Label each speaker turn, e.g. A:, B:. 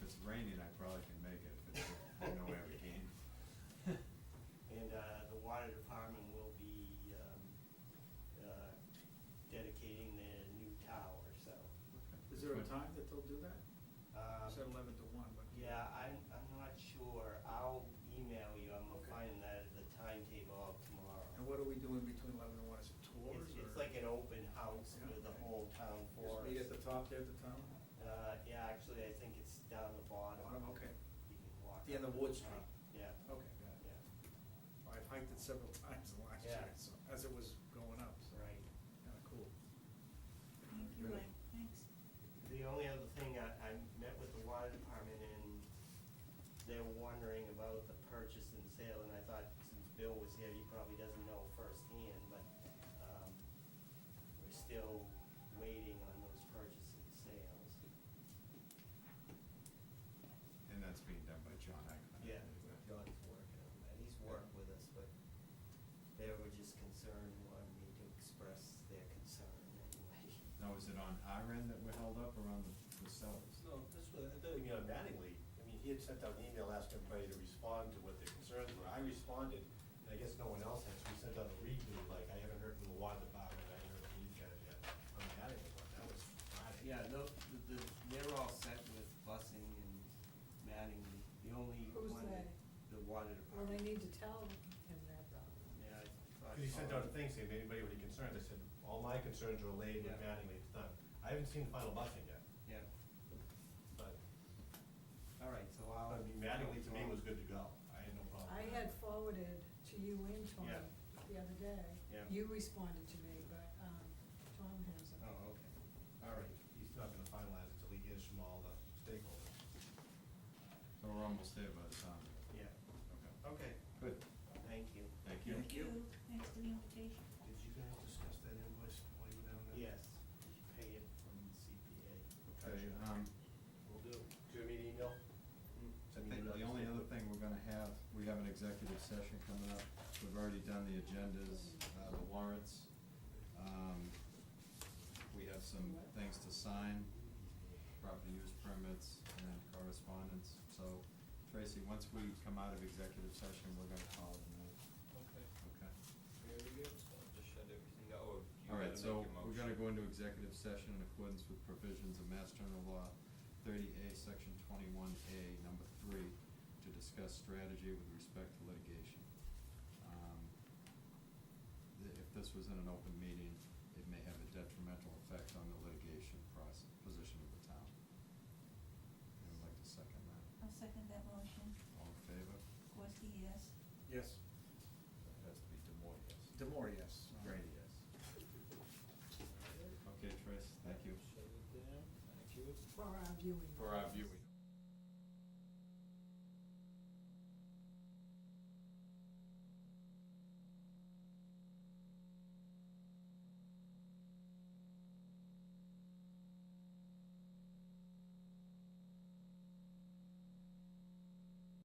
A: uh, um, uh, um, Yeah, I'm, I'm not sure. I'll email you. I'm gonna
B: Okay.
A: find that at the timetable of
B: And
A: tomorrow.
B: what are we doing between eleven and one, is it tours
A: It's,
B: or?
A: it's like an open house
B: Yeah,
A: with the
B: okay.
A: whole town
B: Just meet
A: forest.
B: at the top there at the town?
A: Uh, yeah, actually, I think it's down the bottom.
B: Bottom, okay,
A: You can walk.
B: The end
A: up
B: of
A: to
B: Wood
A: the top. Yeah,
B: okay, got it.
A: yeah,
B: I've hiked it several times in the last
A: Yeah.
B: year, so, as it was going up, so,
A: right.
B: kinda cool.
C: Thank you, Mike, thanks.
A: The only other thing, I, I met with the water department and they were wondering about the purchase and sale, and I thought since Bill was here, he probably doesn't know firsthand, but, um, we're still waiting on those purchase and sales.
D: And that's being done by John Ackman.
A: Yeah.
E: John's working on that, he's worked with us, but they were just concerned, wanted me to express their concern anyway.
D: Now, is it on our end that we're held up or on the- the sellers?
F: No, this was, it doesn't mean automatically, I mean, he had sent out an email asking everybody to respond to what their concerns were, I responded, and I guess no one else has, we sent out a redo, like, I haven't heard from the water department, I haven't heard from these guys yet, I'm not having one, that was Friday.
A: Yeah, no, the, the, they're all set with busing and matting, the only
C: Who's
A: one, that- the water
C: Well,
A: department.
C: they need to tell him that though.
A: Yeah, I thought.
F: Because he sent out a thing saying, anybody with any concerns, I said, all my concerns are relayed with
A: Yeah.
F: Mattingly, it's done, I haven't seen the final busing yet,
A: Yeah,
F: but,
A: all right, so I'll.
F: I mean, Mattingly to me was good to go, I had no problem.
C: I had forwarded to you and Tom
A: Yeah.
C: the other day.
A: Yeah.
C: You responded to me, but, um, Tom hasn't.
A: Oh, okay.
F: All right, he's not gonna finalize it till he hears from all the stakeholders.
D: So we're almost there by the time. Okay.
A: Yeah, okay,
D: Good,
A: thank you.
D: thank you.
C: Thank you, thanks for the invitation.
F: Did you guys discuss that invoice while you were down there?
A: Yes, pay it from CPA.
D: Okay, um,
F: Will do. Do you have any email?
A: Hmm.
D: I think the only other thing we're gonna have, we have an executive session coming up. We've already done the agendas, uh, the warrants. Um, We have some things to sign, property use permits and correspondence. So Tracy, once we come out of executive session, we're gonna call it a night,
E: Okay.
D: okay?
E: Very good. Just shut everything down, or do you
D: All
E: wanna
D: right,
E: make
D: so
E: a
D: we're gonna
E: motion?
D: go into executive session in accordance with provisions of Mass General Law thirty A, section twenty-one A, number three, to discuss strategy with respect to litigation. Um, th- If this was in an open meeting, it may have a detrimental effect on the litigation process, position of the town. I would like to second that.
G: I'll second that motion.
D: All in favor?
C: E
G: Gorski, yes.
B: Yes,
D: It has to be Demoy, yes.
B: Demore, yes. All right.
D: Grady, yes. Okay, Trace, thank you
E: Shut it down, thank you.
C: For our viewing.
D: for our viewing.